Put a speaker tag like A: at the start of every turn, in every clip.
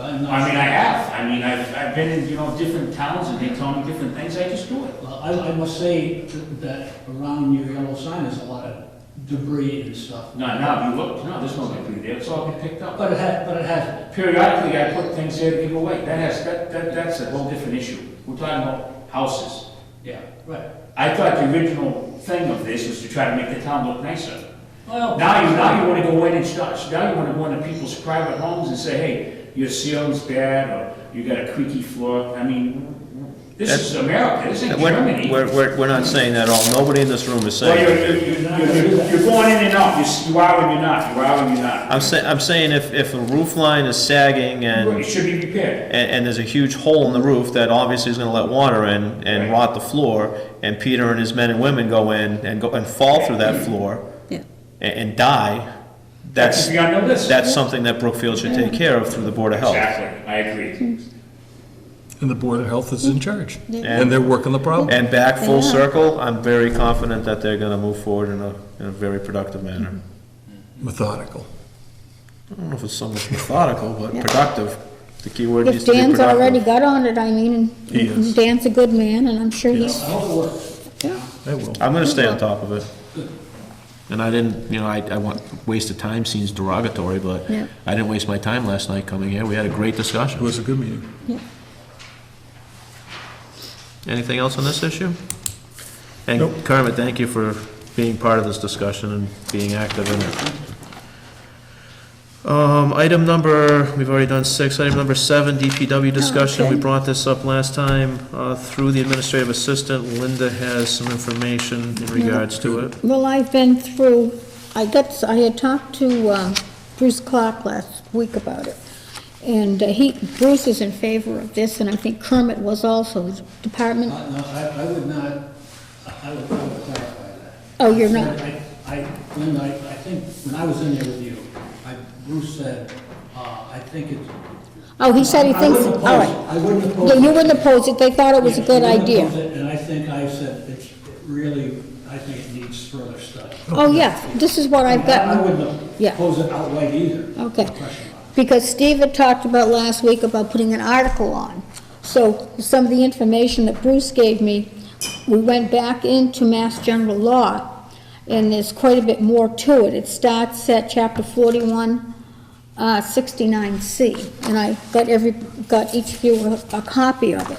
A: I'm not.
B: I mean, I
A: sure.
B: have, I mean, I've, I've been in, you know, different towns and they tell me different things, I just do it.
A: Well, I, I must say that around your yellow sign is a lot of debris and stuff.
B: No, now, if you look, no, there's no debris there, it's all been picked up.
A: But it has, but it has,
B: Periodically, I put things there to give away, that has, that, that, that's a whole different issue. We're talking about houses.
A: yeah, right.
B: I thought the original thing of this was to try to make the town look nicer.
A: Well,
B: Now you, now you wanna go in and start, now you wanna go into people's private homes and say, hey, your ceiling's bad, or you got a creaky floor, I mean, this is America, this
C: And
B: isn't
C: We're,
B: Germany.
C: we're, we're- we're not saying that at all, nobody in this room is
B: Well,
C: saying.
B: you're, you're, you're- you're, you're going in and out, You're s- you are and you're not, you are and you're not.
C: I'm saying, I'm saying if, if a roof line is sagging
B: It
C: and,
B: should be repaired.
C: and, and there's a huge hole in the roof that obviously is gonna let water in and
B: Right.
C: rot the floor, and Peter and his men and women go in and go, and fall through that floor
D: Yeah.
C: and, and die, that's,
B: Should be on the list.
C: that's something that Brookfield should take care of through the Board of Health.
B: Exactly, I agree.
E: And the Board of Health is in charge.
C: Yeah.
E: And they're working the problem.
C: And back full
D: Yeah.
C: circle, I'm very confident that they're gonna move forward in a, in a very productive manner.
E: Methodical.
C: I don't know if it's so much methodical, but productive. The key word needs
D: If
C: to be
D: Dan's already
C: productive.
D: got on it, I mean,
E: He is.
D: Dan's a good man, and I'm sure he's,
A: I hope it works.
E: They will.
C: I'm gonna stay on top of it. And I didn't, you know, I, I want, waste of time seems derogatory, but
D: Yeah.
C: I didn't waste my time last night coming here. We had a great
E: It
C: discussion.
E: was a good meeting.
C: Anything else on this issue?
E: Nope.
C: And Kermit, thank you for being part of this discussion and being active in it. Um, item number, we've already done six, item number seven, DPW discussion, we
D: okay.
C: brought this up last time, uh, through the administrative assistant, Linda has some information in regards to it.
D: well, I've been through, I got, I had talked to um, Bruce Clark last week about it, and uh, he, Bruce is in favor of this, and I think Kermit was also, his department,
A: No, no, I, I would not, I would, I would clarify that.
D: oh, you're not,
A: I, I, Lynn, I, I think, when I was in there with you, I, Bruce said, uh, I think it's.
D: oh, he said he
A: I- I
D: thinks,
A: wouldn't
D: all
A: oppose it.
D: right.
A: I wouldn't oppose
D: Yeah,
A: it.
D: you wouldn't oppose it, they thought it was a
A: Yeah,
D: good
A: I wouldn't
D: idea.
A: oppose it, And I think I said, it's really, I think it needs further study.
D: Oh, yeah, this is what I've got.
A: I wouldn't
D: Yeah.
A: oppose it outright either.
D: Okay.
A: Question mark.
D: Because Steve had talked about last week about putting an article on. So some of the information that Bruce gave me, we went back into Mass General Law, and there's quite a bit more to it. It starts at chapter forty-one, uh, sixty-nine C, and I got every, got each of you a, a copy of it.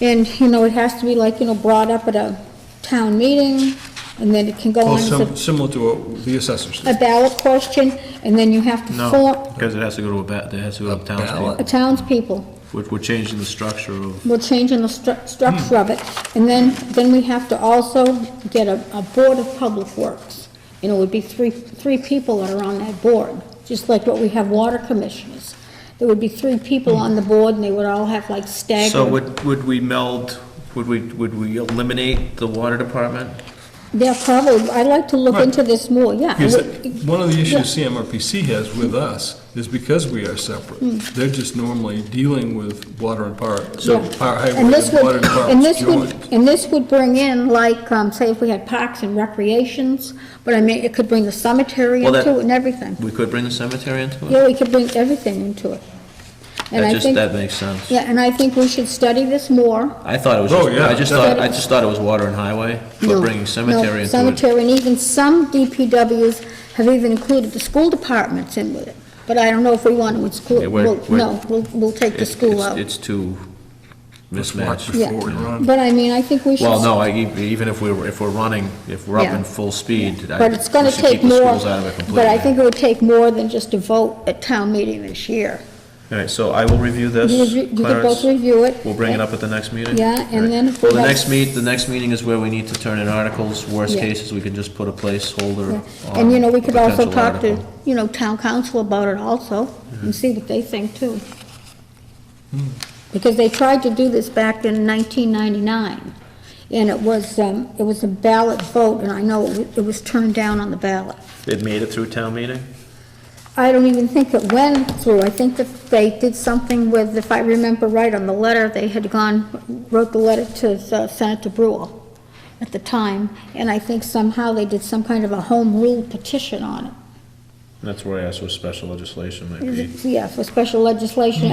D: And, you know, it has to be like, you know, brought up at a town meeting, and Uh, then it can go
E: Well,
D: on as
E: sim-
D: a-
E: similar to what the assessors.
D: a ballot question, and then you have to form,
C: No, because it has to go to a ba, it has to go to
E: A
C: townspeople.
E: ballot?
D: a townspeople.
C: We're, we're changing the structure of,
D: We're changing the stru- structure of it, and then, then we have to also get a, a board of public works. And it would be three, three people that are on that board, just like what we have water commissioners. There would be three people on the board, and they would all have like
C: so
D: staggered,
C: would, would we meld, would we, would we eliminate the water department?
D: they're probably, I'd like to look
E: Right.
D: into this more, yeah.
E: Here's the- One of the issues CMRPC has with us is because we are separate,
D: Hmm.
E: they're just normally dealing with water and power,
D: Yeah.
E: power highway
D: And this
E: and water
D: would, and
E: departments
D: this would,
E: joined.
D: and this would bring in like, um, say if we had parks and recreations, but I mean, it could bring the cemetery
C: Well, that-
D: into it and everything.
C: We could bring the cemetery into it?
D: Yeah, we could bring everything into it. And
C: That
D: I
C: just,
D: think,
C: that makes sense.
D: yeah, and I think we should study this more.
C: I thought it was,
E: Oh,
C: just-
E: yeah,
C: I just thought, I just thought it was water and highway, but
D: No,
C: bringing
D: no,
C: cemetery into it.
D: Cemetery, and even some DPWs have even included the school departments in with it. But I don't know if we want to
C: Yeah,
D: exclude,
C: we're-
D: we'll-
C: we're-
D: no, we'll, we'll take the
C: It's-
D: school
C: it's-
D: out.
C: It's too
E: Let's walk
C: mismatched.
E: before we
D: Yeah.
E: run.
D: But I mean, I think we should.
C: Well, no, I, e- even if we were, if we're running, if we're up
D: Yeah.
C: in full speed, I,
D: But it's gonna
C: we should
D: take
C: keep the
D: more,
C: schools out of it completely.
D: but I think it would take more than just a vote at town meeting this year.
C: All right, so I will review this,
D: You review- you could both
C: Clarence.
D: review it.
C: We'll bring it up at the next meeting?
D: Yeah, and
C: All right.
D: then if we
C: Well, the
D: have-
C: next meet, the next meeting is where we need to turn in articles. Worst
D: Yeah.
C: cases, we can just put a placeholder on.
D: And, you know, we could
C: a
D: also
C: potential
D: talk to,
C: article. Mm-hmm.
D: you know, town council about it also, and see what they think too.
C: Hmm.
D: Because they tried to do this back in nineteen ninety-nine, and it was, um, it was a ballot vote, and I know it wa- it was turned down on the ballot.
C: It made it through town meeting?
D: I don't even think it went through, I think that they did something with, if I remember right, on the letter, they had gone, wrote the letter to uh, Senator Brule at the time, and I think somehow they did some kind of a home rule petition on it.
C: That's where I asked what special legislation might be.
D: Yeah, for special legislation,